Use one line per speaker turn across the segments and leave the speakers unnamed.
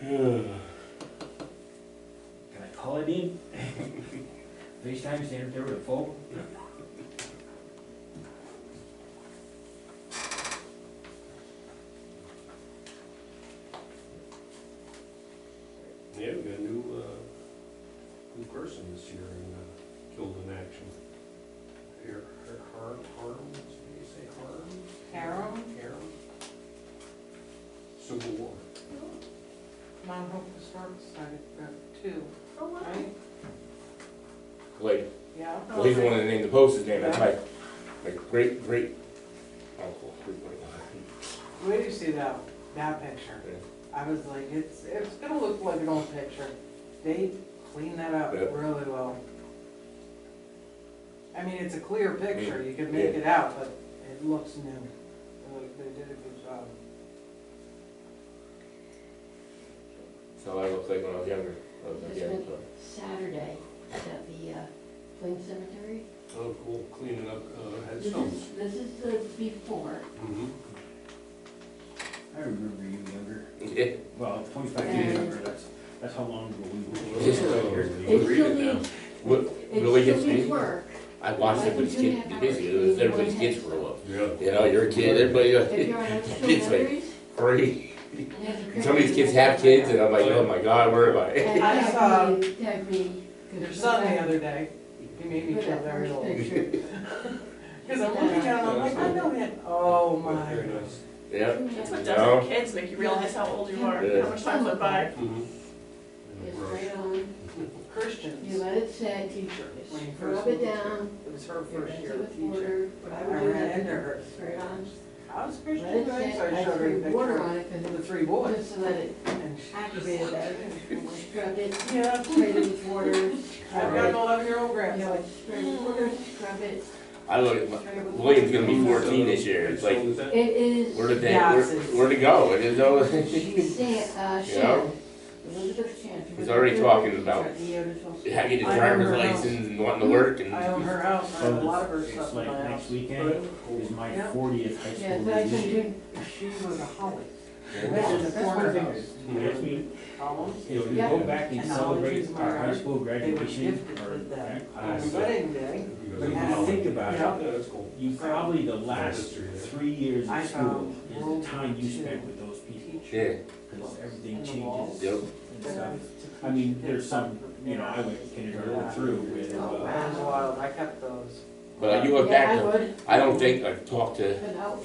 Ugh.
Can I call it in? FaceTime, stand up there with a phone?
Yeah, we got a new, uh, new person this year in, uh, killed in action. Har, Har- har, harm, did you say harm?
Harem?
Harem. Civil War.
Mount Hope Historic Society, got two,
Oh, wow.
right?
Like,
Yeah.
well, he's the one that named the post his name, that's my, my great, great uncle. great great uncle.
Where do you see that, that picture? I was like, it's, it's gonna look like an old picture. They cleaned that up
Yeah.
really well. I mean, it's a clear picture, you can make
Yeah.
it out, but it looks new. They- They did a good job.
That's how I looked like when I was younger. I was like,
Just
yeah,
went Saturday at the uh, Plain Cemetery.
Oh, cool, cleaning up, uh,
This
headstones.
is, this is the before,
Mm-hmm.
I remember you younger.
Yeah.
Well, twenty-five
Yeah.
years younger, that's, that's how long ago we
Just-
were.
it
Read
still
it now.
needs,
What,
it
really
still
gets
needs
me,
work.
I watched everybody's kids be busy, it was everybody's kids grow up.
Yeah.
You know, you're a kid, everybody, uh,
If
like,
you're on
It's
extra
like-
memories.
free. Some of these kids have kids and I'm like, oh my god, where am I?
And
I
that
saw-
really- that really-
Your son the other day, he made me feel very old. Cause I'm looking at him, I'm like, I know him, oh my.
Very nice.
Yeah,
That's what
No.
does to kids, make you realize how old you are,
Yeah.
how much time went by.
Mm-hmm.
It's right on, you
Christians,
let it set,
teacher, when he first
rub it
moved here.
down,
It was her
rinse
first year
it with
teacher.
water, but I
I
would do
ran into
that.
her.
Right on,
I was
let
Christian,
it
so
set,
I
I
showed her a
threw water
picture
on it,
of
cause
the three
it,
boys.
just to let it
And she
activate that, scrubbed it,
Yeah,
sprayed it with water,
I've got an eleven-year-old
you know,
grandson.
like spray with water, scrub it,
I look, at-
spray with water.
William's gonna be fourteen this year, it's like,
Headstones, that-
It is.
where did they, where, where to go? It is always.
She's, uh,
Yeah.
Shan, Elizabeth Shan.
He's already talking about-
Yeah.
Having a driver's license and wanting to work and.
I own her house, I
So
have a lot of her
it's,
stuff
it's
in my
like
house.
next weekend is my
Yeah.
fortieth high
Yeah,
school
so I can
reunion.
do,
She was a holly.
Yeah.
Lived in the
That's
corner
one
house.
Next week,
Columns.
you know, we
Yeah.
go back and
And I'll
celebrate
use my
our high
art.
school
They were
graduation
gifted
or
with
grad
that. On
class.
wedding day,
But
You
you
guys-
have to think about
Yeah.
it,
Yeah, that's cool.
you probably, the last
History there.
three years
I
of school
found
is
World
the time you
War
spent
II
with those people,
Yeah,
teacher.
because everything
And the walls.
changes
yep.
and stuff. I mean, there's some, you know, I went kindergarten through with,
Oh,
uh,
That was wild, I kept those.
But you look
yeah, I
back,
would,
I don't think I've talked to
but I'll.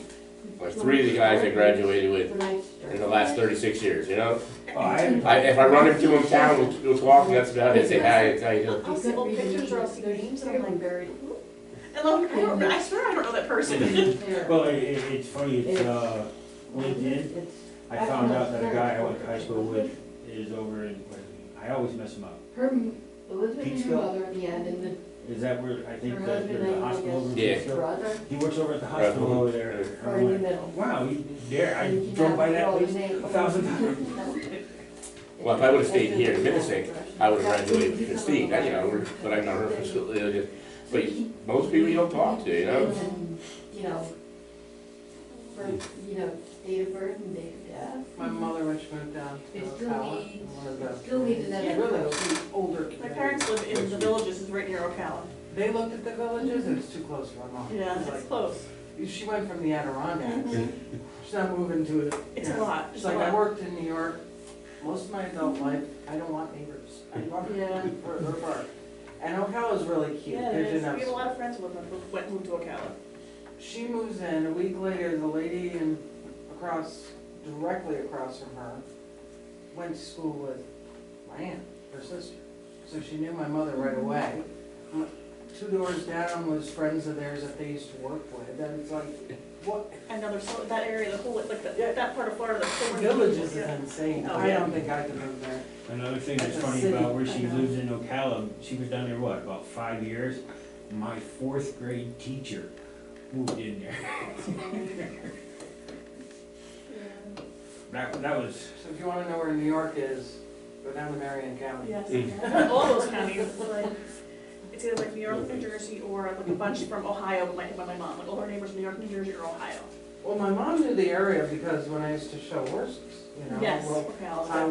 like three of the guys I graduated with
When I
in
started.
the last thirty-six years, you know?
oh, I haven't
I, if I run into them in town, we'll, we'll talk, that's about it, say hi, it's how you doing?
I'll see old pictures or I'll see names and I'm like,
buried.
and I'm like, I don't, I swear I don't know that person.
Well, it, it- it's funny, it's, uh, LinkedIn, I found out that a guy I went to high school with is over in, I always mess him up.
Her, m- Elizabeth and her
Peekskill?
mother at the end and then
Is that where, I think
Her
that
husband,
there's a
I
hospital over
Yeah.
there?
her brother,
He works over at the hospital
Right.
over there.
or
I'm
in the
like,
middle.
Wow, you there, I
And you
drove by
have
that
all the
place
names.
a thousand times.
Well, if I would've stayed here in Minnesota, I would've graduated with Christine, I, you know, we're, but I know her from school, you know, just- but you- most people you don't talk to, you know?
And then, you know, birth, you know, date of birth and date of death.
My mother, when she moved down to
It
the
still
tower,
needs-
one of the.
it still needs another
It's really
approach.
an older
My
community.
parents live in the villages, is right near Ocala.
They looked at the villages, it was too close to my mom.
Yeah,
It's
it's close.
like, She went from the Adirondacks,
Mhm.
she's not moving to it.
It's a lot,
She's
it's a
like, I
lot.
worked in New York most of my adult life, I don't want neighbors, I want
Yeah.
them for their park. And Ocala's really cute,
Yeah, it
there's
is. We
enough.
have a lot of friends who live in- who went, moved to Ocala.
She moves in, a week later, the lady in, across, directly across from her, went to school with my aunt, her sister. So she knew my mother
Mm-hmm.
right away. M- Two doors down was friends of theirs that they used to work with, and it's like, what,
I know there's so, that area, the whole, like, the- that part of Florida, there's so many.
villages is
people.
insane,
Oh,
I
yeah.
don't think I could move there.
Another thing
That's
that's
a
funny
city.
about where
I
she
know.
lives in Ocala, she was down there, what, about five years? My fourth grade teacher moved in there. That, that was,
So if you wanna know where New York is, go down to Marion County.
Yeah. Yes, all those counties, like, it's either like New York, New Jersey, or like a bunch from Ohio, but my, by my mom, like all her neighbors in New York, New Jersey, or Ohio.
Well, my mom knew the area because when I used to show horses, you know.
Yes,
well,
Ocala.
I